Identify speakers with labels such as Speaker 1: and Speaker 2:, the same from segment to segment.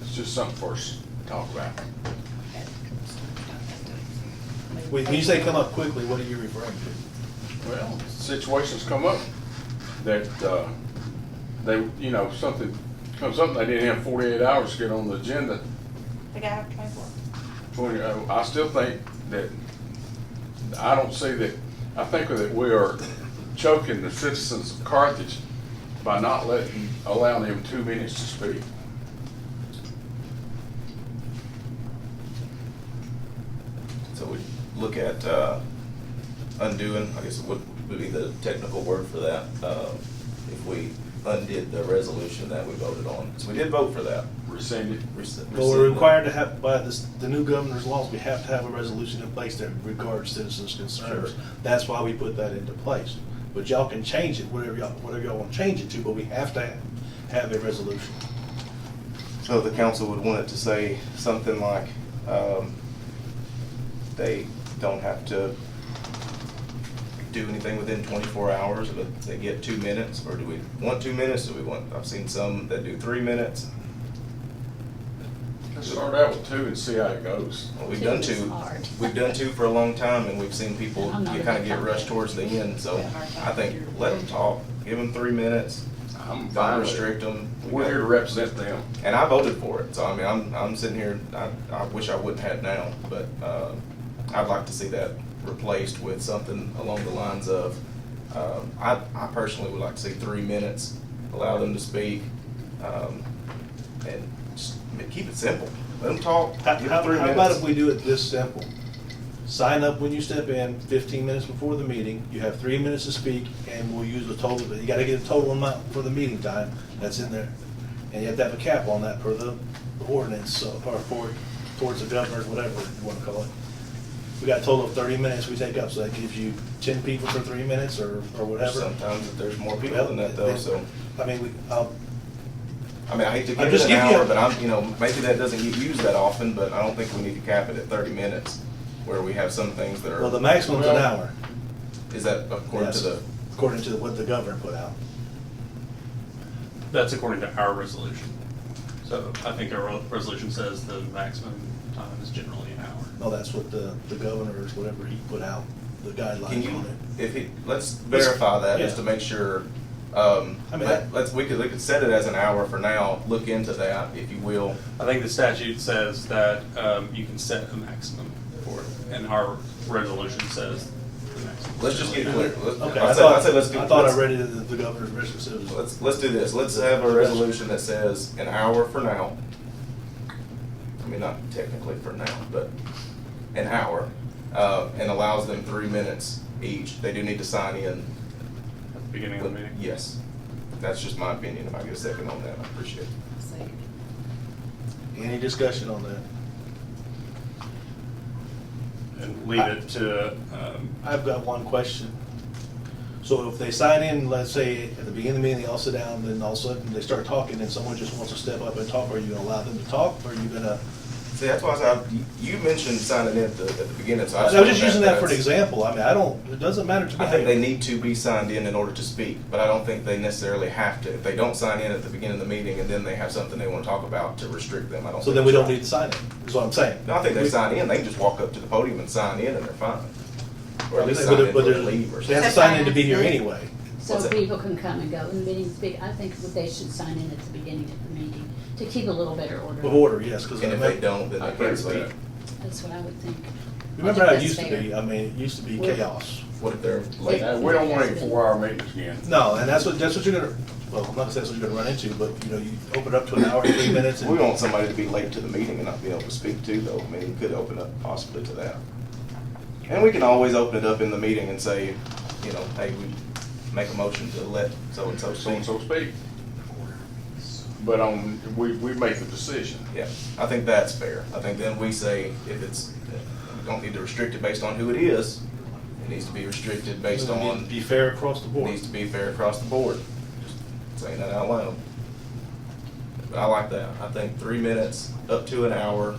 Speaker 1: It's just something for us to talk about.
Speaker 2: Wait, when you say come up quickly, what are you referring to?
Speaker 1: Well, situations come up that, uh, they, you know, something comes up, and they didn't have forty-eight hours to get on the agenda.
Speaker 3: They gotta have twenty-four.
Speaker 1: Twenty, uh, I still think that, I don't see that, I think that we are choking the citizens of Carthage by not letting, allowing them two minutes to speak.
Speaker 4: So we look at uh, undoing, I guess what would be the technical word for that, uh, if we undid the resolution that we voted on, because we did vote for that.
Speaker 1: Rescind it.
Speaker 2: Well, we're required to have, by this, the new governor's laws, we have to have a resolution in place that regards citizens' concerns.
Speaker 4: Sure.
Speaker 2: That's why we put that into place. But y'all can change it, whatever y'all, whatever y'all want to change it to, but we have to have- have a resolution.
Speaker 4: So the council would want it to say something like, um, they don't have to do anything within twenty-four hours, but they get two minutes, or do we want two minutes, do we want, I've seen some that do three minutes.
Speaker 1: Let's Start out with two and see how it goes.
Speaker 4: Well, we've
Speaker 5: Two
Speaker 4: done
Speaker 5: is
Speaker 4: two,
Speaker 5: hard.
Speaker 4: we've done two for a long time, and we've seen people
Speaker 5: I'm not
Speaker 4: get
Speaker 5: a
Speaker 4: kind of
Speaker 5: big
Speaker 4: get
Speaker 5: fan.
Speaker 4: rushed towards the end, so
Speaker 5: Yeah, hard
Speaker 4: I think
Speaker 5: time.
Speaker 4: let them talk, give them three minutes,
Speaker 1: I'm
Speaker 4: don't
Speaker 1: fine with
Speaker 4: restrict
Speaker 1: it.
Speaker 4: them. We
Speaker 1: We're
Speaker 4: got-
Speaker 1: here to represent them.
Speaker 4: And I voted for it, so I mean, I'm, I'm sitting here, I, I wish I wouldn't have now, but, uh, I'd like to see that replaced with something along the lines of, um, I, I personally would like to see three minutes, allow them to speak, um, and just keep it simple, let them talk,
Speaker 2: How,
Speaker 4: give
Speaker 2: how
Speaker 4: them three
Speaker 2: how about
Speaker 4: minutes.
Speaker 2: if we do it this simple? Sign up when you step in, fifteen minutes before the meeting, you have three minutes to speak, and we'll use the total, but you gotta get a total amount for the meeting time that's in there. And you have to have a cap on that per the the ordinance, so, or for, towards the governor, whatever you wanna call it. We got a total of thirty minutes we take up, so that gives you ten people for three minutes, or, or whatever.
Speaker 4: Sometimes there's more people than that though, so,
Speaker 2: I mean, we, uh, I'll,
Speaker 4: I mean, I hate to
Speaker 2: I'm
Speaker 4: give
Speaker 2: just
Speaker 4: it an
Speaker 2: giving you-
Speaker 4: hour, but I'm, you know, maybe that doesn't get used that often, but I don't think we need to cap it at thirty minutes, where we have some things that
Speaker 2: well, the
Speaker 4: are,
Speaker 2: maximum's an
Speaker 1: Well-
Speaker 2: hour.
Speaker 4: is that according to
Speaker 2: Yes,
Speaker 4: the?
Speaker 2: According to what the governor put out.
Speaker 6: That's according to our resolution. So I think our re- resolution says the maximum time is generally an hour.
Speaker 2: No, Oh, that's what the, the governor's, whatever he put out, the
Speaker 4: Can
Speaker 2: guidelines
Speaker 4: you,
Speaker 2: on it.
Speaker 4: if he, let's verify that, just to
Speaker 2: Yeah.
Speaker 4: make sure, um,
Speaker 2: I mean,
Speaker 4: let-
Speaker 2: I-
Speaker 4: let's, we could, we could set it as an hour for now, look into that, if you will.
Speaker 6: I think the statute says that um, you can set a maximum for it, and our resolution says the maximum.
Speaker 4: Let's just get it clear, let's,
Speaker 2: Okay,
Speaker 4: I
Speaker 2: I
Speaker 4: said, I
Speaker 2: thought,
Speaker 4: said, let's do.
Speaker 2: I thought I
Speaker 4: let's-
Speaker 2: read it in the the governor's resolution.
Speaker 4: Let's, let's do this, let's have a resolution that says an hour for now. I mean, not technically for now, but an hour, uh, and allows them three minutes each, they do need to sign in.
Speaker 6: At the beginning of the meeting.
Speaker 4: Yes, that's just my opinion, if I get a second on that, I appreciate it.
Speaker 2: Any discussion on that?
Speaker 6: And leave it to, um,
Speaker 2: I've got one question. So if they sign in, let's say, at the beginning of the meeting, they all sit down, then all of a sudden they start talking, and someone just wants to step up and talk, are you gonna allow them to talk, or are you gonna?
Speaker 4: See, that's why I said, you- you mentioned signing in at the, at the beginning, so I
Speaker 2: I was
Speaker 4: just.
Speaker 2: just using that for an
Speaker 4: that's-
Speaker 2: example, I mean, I don't, it doesn't matter to me.
Speaker 4: I think they need to be signed in in order to speak, but I don't think they necessarily have to. If they don't sign in at the beginning of the meeting and then they have something they want to talk about to restrict them, I don't think.
Speaker 2: So then we
Speaker 4: it's
Speaker 2: don't
Speaker 4: right.
Speaker 2: need to sign it, is what I'm saying.
Speaker 4: No, I think they
Speaker 2: We-
Speaker 4: sign in, they can just walk up to the podium and sign in and they're fine. Or
Speaker 2: But
Speaker 4: at least
Speaker 2: they-
Speaker 4: sign in
Speaker 2: but
Speaker 4: for
Speaker 2: they're-
Speaker 4: a leave or
Speaker 2: They have
Speaker 4: something.
Speaker 2: to sign in to be here anyway.
Speaker 4: What's
Speaker 5: So
Speaker 4: that?
Speaker 5: people can come and go, and meeting speak, I think that they should sign in at the beginning of the meeting to keep a little better order.
Speaker 2: Of order, yes, uh, because.
Speaker 4: And if they don't, then
Speaker 1: I
Speaker 4: they
Speaker 1: agree
Speaker 4: can't
Speaker 1: with
Speaker 4: speak.
Speaker 1: that.
Speaker 5: That's what I would think.
Speaker 2: Remember how
Speaker 5: I
Speaker 2: it
Speaker 5: think
Speaker 2: used to
Speaker 5: that's
Speaker 2: be,
Speaker 5: fair.
Speaker 2: I mean, it used to be
Speaker 5: Well-
Speaker 2: chaos.
Speaker 4: What if they're late?
Speaker 1: Now, we don't want any four-hour meetings again.
Speaker 2: No, and that's what, that's what you're gonna, well, I'm not gonna say that's what you're gonna run into, but, you know, you open up to an hour, three minutes,
Speaker 4: We
Speaker 2: and
Speaker 4: want somebody to be late to the meeting and not be able to speak to, though, I mean, it could open up possibly to that. And we can always open it up in the meeting and say, you know, hey, we make a motion to let so-and-so
Speaker 1: so-and-so
Speaker 4: speak.
Speaker 1: speak. But on, we, we make the decision.
Speaker 4: Yeah, I think that's fair. I think then we say, if it's, we don't need to restrict it based on who it is, it needs to be restricted based on,
Speaker 2: be fair across the board.
Speaker 4: needs to be fair across the board. Just Saying that out loud. But I like that. I think three minutes, up to an hour,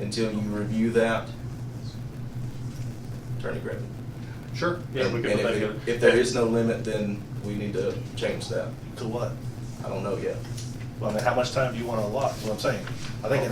Speaker 4: until you review that. Attorney Griffin.
Speaker 6: Sure. Yeah,
Speaker 4: And
Speaker 6: we can put
Speaker 4: if
Speaker 6: that
Speaker 4: it-
Speaker 6: together.
Speaker 4: If there is no limit, then we need to change that.
Speaker 2: To what?
Speaker 4: I don't know yet.
Speaker 2: Well, I mean, how much time do you want to allot, is what I'm saying. I think an